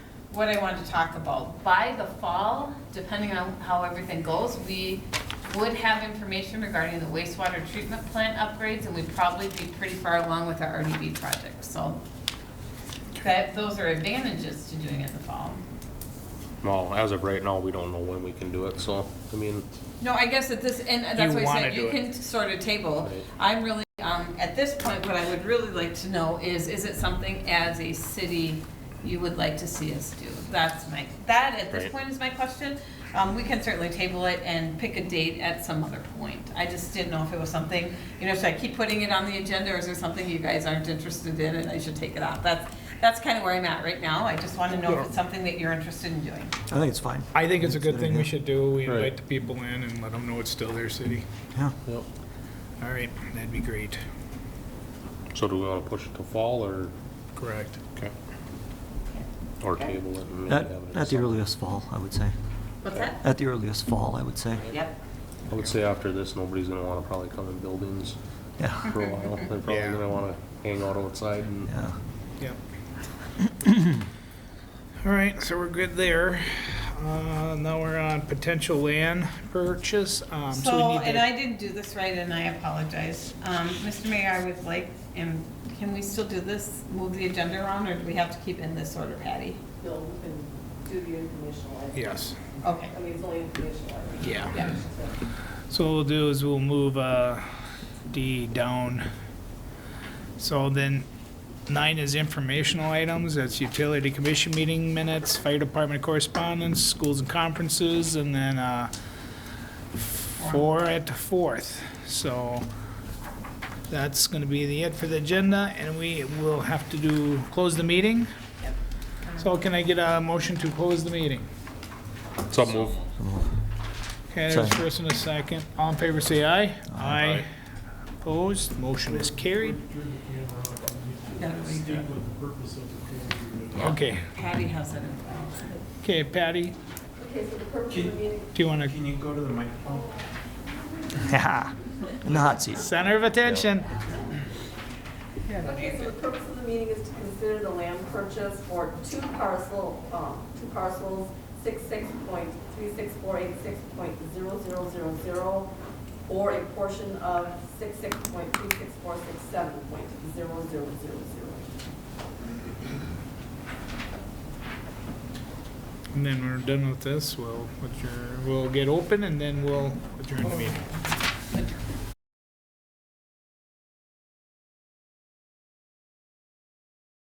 what I wanted to talk about. By the fall, depending on how everything goes, we would have information regarding the wastewater treatment plant upgrades, and we'd probably be pretty far along with our RDB project, so that, those are advantages to doing it in the fall. Well, as of right now, we don't know when we can do it, so, I mean, No, I guess at this, and that's why You I wanna said you do it. can sort of table. Right. I'm really, um, at this point, what I would really like to know is, is it something as a city you would like to see us do? That's my, that at this Right. point is my question. Um, we can certainly table it and pick a date at some other point. I just didn't know if it was something, you know, should I keep putting it on the agenda or is there something you guys aren't interested in and I should take it off? That's, that's kind of where I'm at right now. I just want to know if it's something that you're interested in doing. I think it's fine. I think it's a good thing we should do. We Right. invite the people in and let them know it's still their city. Yeah. yep. All right, that'd be great. So do we wanna push it to fall or, Correct. okay? Or table it and maybe At, have it? in at the summer? earliest fall, I would say. What's that? At the earliest fall, I would say. Yep. I would say after this, nobody's gonna wanna probably come in buildings Yeah, for a while. They're probably Yeah. gonna wanna hang out outside and, yeah. Yep. All right, so we're good there. Uh, Now we're on potential land purchase. Um, we So, need to- and I didn't do this right, and I apologize. Um, Mr. Mayor, I would like, and can we still do this, move the agenda around, or do we have to keep in this order, Patty? No, we can do the informational item. Yes, Okay. I mean, it's only informational item. yeah. Yeah. So, So what we'll do is we'll move uh, D down. So then nine is informational items, that's utility commission meeting minutes, fire department correspondence, schools and conferences, and then uh, four at the fourth. So that's going to be the it for the agenda, and we will have to do, close the meeting. So can I get a motion to close the meeting? so move. Okay, there's Second. first and a second. All in favor, say aye. Aye. Opposed, motion is carried. That we do. Okay, Patty has it. okay, Patty, Okay, so the purpose of the meeting, do you want to, Can you go to the microphone? Yeah. In the hot seat. center of attention? okay, so the purpose of the meeting is to consider the land purchase for two parcel, um, two parcels, six six point three six four eight six point zero zero zero zero, or a portion of six six point three six four six seven point zero zero zero zero. And then we're done with this, we'll, adjourn- we'll get open and then we'll adjourn the meeting.